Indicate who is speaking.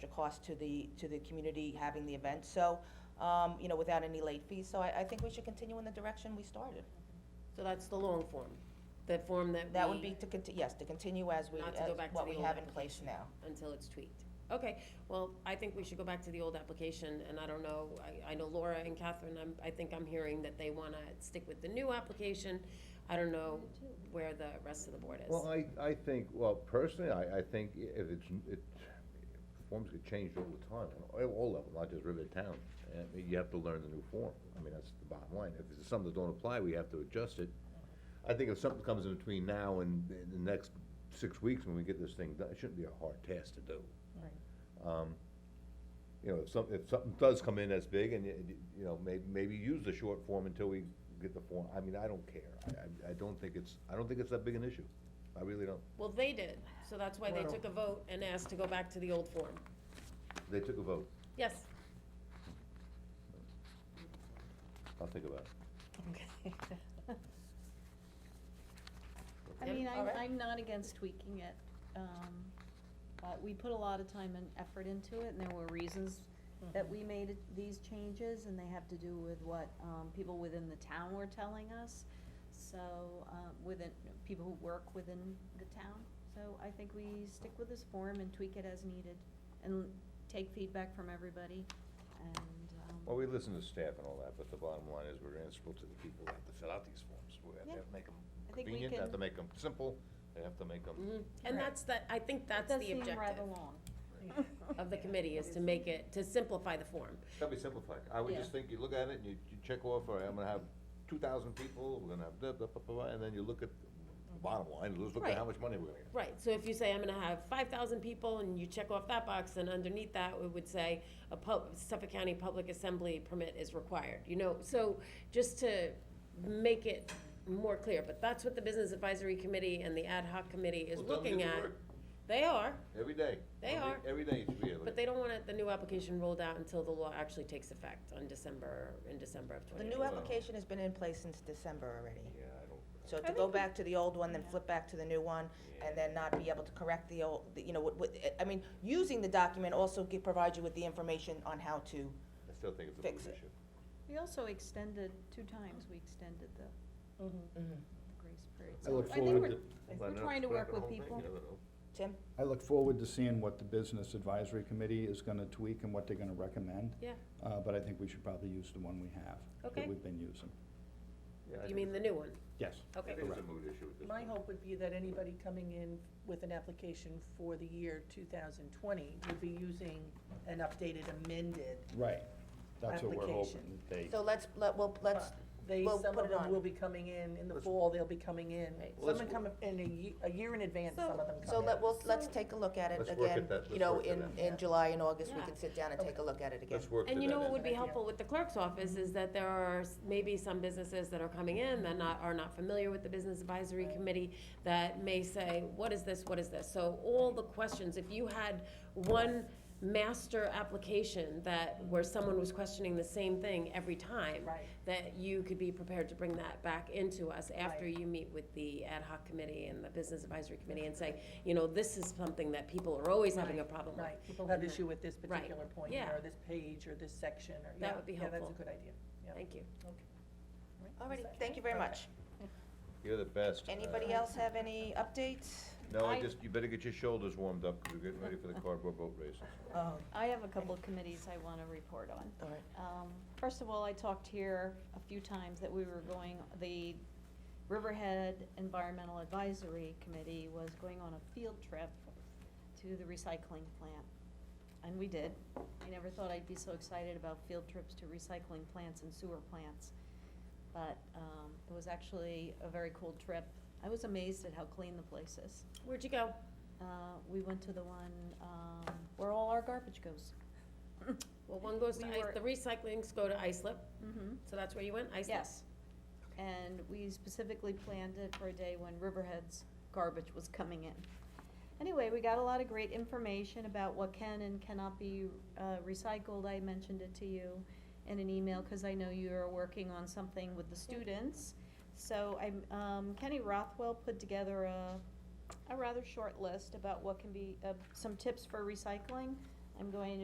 Speaker 1: cost to the, to the community having the event, so, um, you know, without any late fees, so I, I think we should continue in the direction we started.
Speaker 2: So that's the long form, the form that we.
Speaker 1: That would be to conti, yes, to continue as we,
Speaker 2: Not to go
Speaker 1: as
Speaker 2: back to
Speaker 1: what
Speaker 2: the
Speaker 1: we
Speaker 2: old
Speaker 1: have in place now.
Speaker 2: Until it's tweaked. Okay, well, I think we should go back to the old application, and I don't know, I, I know Laura and Catherine, I'm, I think I'm hearing that they wanna stick with the new application. I don't know where the rest of the board is.
Speaker 3: Well, uh, I, I think, well, personally, I, I think i- if it's, n- it, forms get changed all the time, on all- all levels, not just Rivet Town. And I mean, you have to learn the new form, I mean, that's the bottom line, if it's something that don't apply, we have to adjust it. I think if something comes in between now and the- the next six weeks when we get this thing done, it shouldn't be a hard task to do. Um, You know, if some, if something does come in that's big and, you- you know, may, maybe use the short form until we get the form, I mean, I don't care. I- I, I don't think it's, I don't think it's that big an issue, I really don't.
Speaker 2: Well, they did, so that's why they
Speaker 3: Well-
Speaker 2: took a vote and asked to go back to the old form.
Speaker 3: They took a vote,
Speaker 2: Yes?
Speaker 3: I'll think about it.
Speaker 2: Okay.
Speaker 4: I
Speaker 2: Yep,
Speaker 4: mean, I'm,
Speaker 2: alright.
Speaker 4: I'm not against tweaking it, um, but we put a lot of time and effort into it, and there were reasons
Speaker 2: Hmm.
Speaker 4: that we made it- these changes, and they have to do with what, um, people within the town were telling us. So, um, within, people who work within the town, so I think we stick with this form and tweak it as needed, and take feedback from everybody, and, um.
Speaker 3: Well, we listen to staff and all that, but the bottom line is we're answerable to the people that have to fill out these forms. We have
Speaker 4: Yeah.
Speaker 3: to make them
Speaker 4: I think we
Speaker 3: convenient, have to
Speaker 4: can-
Speaker 3: make them simple, they have to make them,
Speaker 2: Mhm.
Speaker 4: Correct.
Speaker 2: And that's the, I think that's the objective.
Speaker 4: It does seem rather long.
Speaker 2: of the committee is to make it, to simplify the form.
Speaker 3: that'd be simplified. I would
Speaker 4: Yeah.
Speaker 3: just think, you look at it and you, you check off, all right, I'm gonna have two thousand people, we're gonna have da, da, da, da, da, and then you look at the bottom line, let's look at how
Speaker 2: Right.
Speaker 3: much money we're gonna get.
Speaker 2: Right, so if you say, I'm gonna have five thousand people, and you check off that box, and underneath that, it would say, a pub, Suffolk County Public Assembly permit is required, you know, so, just to make it more clear, but that's what the Business Advisory Committee and the Ad Hoc Committee is
Speaker 3: Well, tell 'em
Speaker 2: looking
Speaker 3: to
Speaker 2: at.
Speaker 3: do work.
Speaker 2: They are,
Speaker 3: Every day.
Speaker 2: They
Speaker 3: Every-
Speaker 2: are.
Speaker 3: Every day you should be able to.
Speaker 2: but they don't want it, the new application rolled out until the law actually takes effect on December, in December of
Speaker 1: The
Speaker 2: twenty
Speaker 1: new
Speaker 2: nineteen.
Speaker 3: app-
Speaker 1: application has been in place since December already.
Speaker 3: Yeah, I don't,
Speaker 1: So
Speaker 4: I
Speaker 1: to go
Speaker 4: think we-
Speaker 1: back to the old one, then
Speaker 4: Yeah.
Speaker 1: flip back to the new one,
Speaker 3: Yeah.
Speaker 1: and then not be able to correct the old, the- you know, what, what, I mean, using the document also gi- provides you with the information on how to,
Speaker 3: I still think it's a
Speaker 1: Fix
Speaker 3: mood
Speaker 1: it.
Speaker 3: issue.
Speaker 4: We also extended, two times we extended the
Speaker 1: Mm-hmm.
Speaker 4: grace period.
Speaker 5: I look
Speaker 4: So think
Speaker 5: forward
Speaker 4: we're-
Speaker 5: to,
Speaker 4: We're trying to work with people.
Speaker 1: Tim?
Speaker 5: I look forward to seeing what the Business Advisory Committee is gonna tweak and what they're gonna recommend.
Speaker 2: Yeah.
Speaker 5: Uh, but I think we should probably use the one we have.
Speaker 2: Okay.
Speaker 5: That we've been using.
Speaker 2: You mean the new one?
Speaker 5: Yes.
Speaker 2: Okay.
Speaker 3: It is a mood issue at this
Speaker 6: My
Speaker 3: point.
Speaker 6: hope would be that anybody coming in with an application for the year two thousand twenty would be using an updated, amended.
Speaker 5: Right. That's what we're hoping,
Speaker 6: Application.
Speaker 5: that they,
Speaker 1: So let's, let, well, let's,
Speaker 6: They,
Speaker 1: Well,
Speaker 6: some
Speaker 1: put
Speaker 6: of
Speaker 1: it
Speaker 6: them
Speaker 1: on.
Speaker 6: will be coming in, in the
Speaker 3: Let's-
Speaker 6: fall, they'll be coming in.
Speaker 2: Right.
Speaker 3: Let's
Speaker 6: Some come in a ye- a year in advance, some of
Speaker 1: so,
Speaker 6: them come in.
Speaker 1: so let, well, let's take a look at it
Speaker 3: Let's work
Speaker 1: again,
Speaker 3: at that.
Speaker 1: you
Speaker 3: Let's
Speaker 1: know,
Speaker 3: work at
Speaker 1: in,
Speaker 3: that.
Speaker 1: in
Speaker 6: Yeah.
Speaker 1: July and August, we
Speaker 2: Yeah.
Speaker 1: can sit down and take a look at it again.
Speaker 3: Let's work to that
Speaker 2: And you know what would be
Speaker 6: Good
Speaker 2: helpful with the clerk's office is that there are s- maybe some businesses that are coming in that not, are not familiar with the business advisory committee that may say, what is this, what is this? So all the questions, if you had one master application that, where someone was questioning the same thing every time,
Speaker 6: Right,
Speaker 2: that you could be prepared to bring that back into us after
Speaker 6: Right.
Speaker 2: you meet with the ad hoc committee and the business advisory committee and say, you know, this is something that people are always having a problem with.
Speaker 6: right, people have issue with this
Speaker 2: Right.
Speaker 6: particular point,
Speaker 2: Yeah.
Speaker 6: or this page, or this section, or, yeah,
Speaker 2: That would be
Speaker 6: yeah, that's a
Speaker 2: helpful.
Speaker 6: good idea. Yeah.
Speaker 2: Thank you.
Speaker 1: Alrighty, thank you very
Speaker 6: Okay.
Speaker 1: much.
Speaker 3: You're the best. Uh,
Speaker 1: Anybody else have any updates?
Speaker 3: No, I
Speaker 4: I-
Speaker 3: just, you better get your shoulders warmed up, because we're getting ready for the cardboard boat races.
Speaker 1: Oh,
Speaker 4: I have a couple of committees I want to report on.
Speaker 1: alright.
Speaker 4: Um, first of all, I talked here a few times that we were going, the Riverhead Environmental Advisory Committee was going on a field trip to the recycling plant. And we did. I never thought I'd be so excited about field trips to recycling plants and sewer plants. But, um, it was actually a very cool trip. I was amazed at how clean the place is.
Speaker 2: Where'd you go?
Speaker 4: Uh, we went to the one, um, where all our garbage goes.
Speaker 2: Well, one goes to,
Speaker 4: We
Speaker 2: Ice-
Speaker 4: were-
Speaker 2: the recyclings go to Islip,
Speaker 4: Mm-hmm.
Speaker 2: so that's where you went, Islip?
Speaker 4: Yes. And we specifically planned it for a day when Riverhead's garbage was coming in. Anyway, we got a lot of great information about what can and cannot be uh, recycled. I mentioned it to you in an email, because I know you're working on something with the students. So I'm, um, Kenny Rothwell put together a, a rather short list about what can be, uh, some tips for recycling. I'm going to